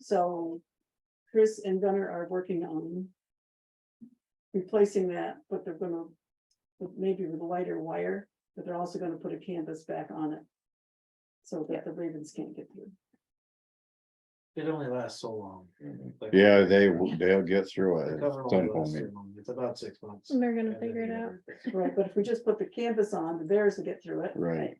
So Chris and Gunnar are working on replacing that, but they're gonna, with- maybe with lighter wire, but they're also gonna put a canvas back on it. So that the ravens can't get through. It only lasts so long. Like, Yeah, they, w- they'll get through the it. cover at only lasts some point. three months. It's about six months. They're gonna And figure it then out. you- Right, but if we just put the canvas on, the bears will get through it. Right.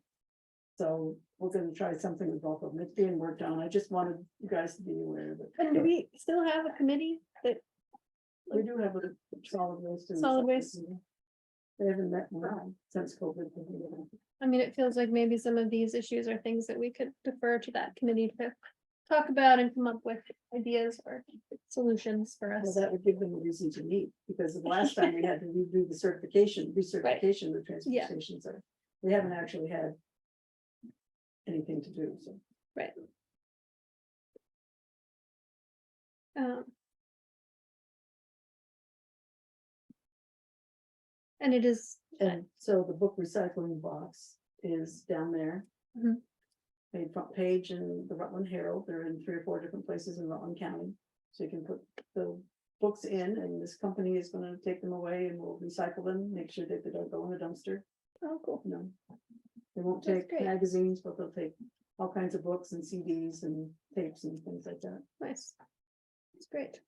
So we're gonna try something with both of them. It's being worked on. I just wanted you guys to be aware of it. And do we still have a committee that, We do have a solid waste. and Solid waste. something. They haven't met in a while, since COVID. I mean, it feels like maybe some of these issues are things that we could defer to that committee to talk about and come up with ideas or solutions for Well, us. that would give them a reason to meet, because the last time we had to redo the certification, recertification, of the transfer Yeah. stations are, we haven't actually had. Anything to do, so. Um, And it is, And so the book recycling box is down there. Mhm. Made front page in the Rutland Herald, they're in three or four different places in Rutland County. So you can put the books in and this company is gonna take them away and we'll recycle them, make sure that they don't go in the dumpster, oh, cool. you know. They won't That's take great. magazines, but they'll take all kinds of books and CDs and tapes and things like that. Nice. It's great.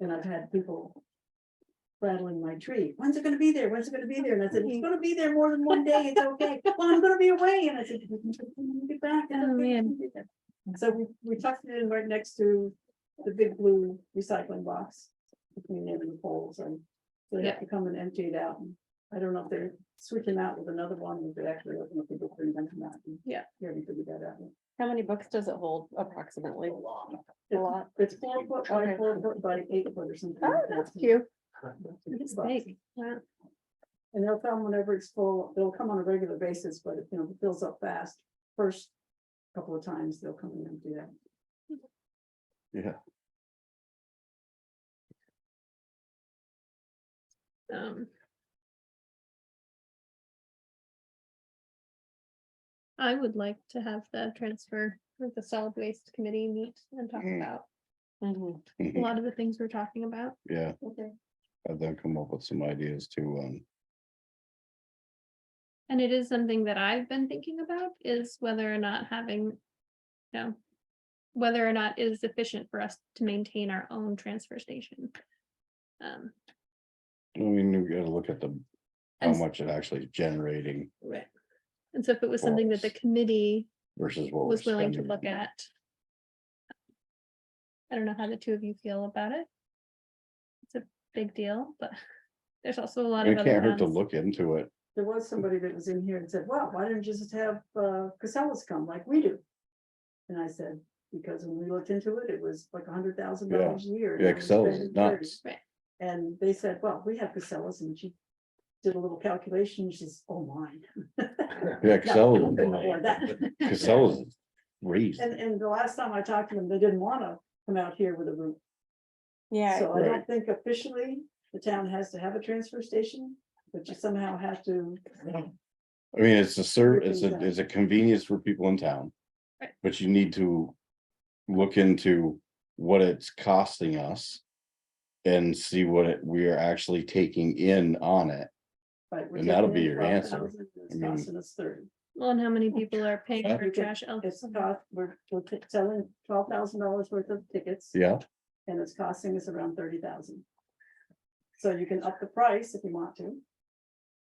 And I've had people rattling my tree. When's it gonna be there? When's it gonna be there? And I said, it's gonna be there more than one day. It's okay. Well, I'm gonna be away. And I said, "When you get back. it's Oh, okay, you man. can do that." So we, we tucked it in right next to the big blue recycling box between them and the poles and so they have to come and empty it out. And I don't know if they're switching out with another one, if they actually open up the book and then come out. and Yeah. Here we could do that out. How many books does it hold approximately? A It's- lot. It's four foot by Okay. four foot by eight foot or something. Oh, like that. that's cute. It's It's boxes. big. Wow. And they'll come whenever it's full, they'll come on a regular basis, but if, you know, it fills up fast, first couple of times, they'll come in and do that. Um. I would like to have the transfer, with the solid waste committee meet and talk Mm. about Mhm. a lot of the things we're talking about. Yeah, Okay. and then come up with some ideas to, um, And it is something that I've been thinking about is whether or not having, you know, whether or not it is efficient for us to maintain our own transfer station. Um, I mean, you gotta look at the, how And s- much it actually is generating Right. And so if it was something that the Yes. committee versus what. was we're willing to spending. look at. I don't know how the two of you feel about it. It's a big deal, but there's also a lot of It other can't hurt to ones. look into it. There was somebody that was in here and said, wow, why didn't you just have uh Casellas come like we do? And I said, because when we looked into it, it was like a hundred thousand dollars a year. and Yeah, now we're Casellas is spending 30. nuts. Right. And they said, well, we have Casellas and she did a little calculation, she says, oh my. Mm. Yeah, No, Casella, we couldn't afford that. Casella's raised. And, and the last time I talked to them, they didn't wanna come out here with a roof. Yeah, So I don't Right. think officially the town has to have a transfer station, but you somehow have to. I mean, it's a serv, it's a, Everything's it's a convenience for people in town. Right. But you need to look into what it's costing us. And see what it, we are actually taking in on it. right, we're And that'll taking be in your answer. 12,000, It's I mean- costing us thirty. Well, and how many people are paying Oh, Yeah. for trash? Oh, It's cost, we're, we're t- selling twelve thousand dollars worth of tickets. Yeah, And it's costing us around thirty thousand. So you can up the price if you want to.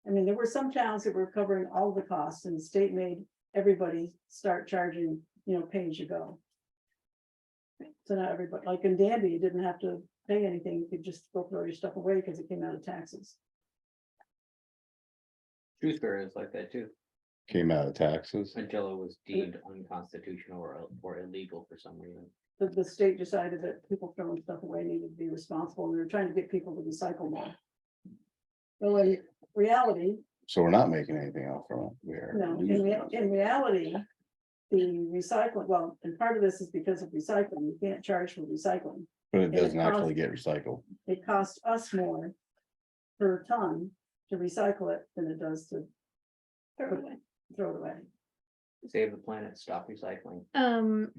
I mean, there were some towns that were covering all the costs and the state made everybody start charging, you know, pay as you go. So now everybody, like in Danby, you didn't have to pay anything, you could just go throw your stuff away because it came out of taxes. Shrewsbury is like that too, came out of taxes. until it was deemed unconstitutional or, or illegal for some reason. The, the state decided that people throwing stuff away needed to be responsible, and they were trying to get people to recycle more. Well, in reality, So we're not making anything out from it. We're. No, in losing rea- out. in reality, the recycling, well, and part of this is because of recycling, you can't charge for recycling. But it it doesn't actually costs- get recycled. It costs us more per ton to recycle it than it does to throw it away. throw it away. Save the planet, stop recycling. Um,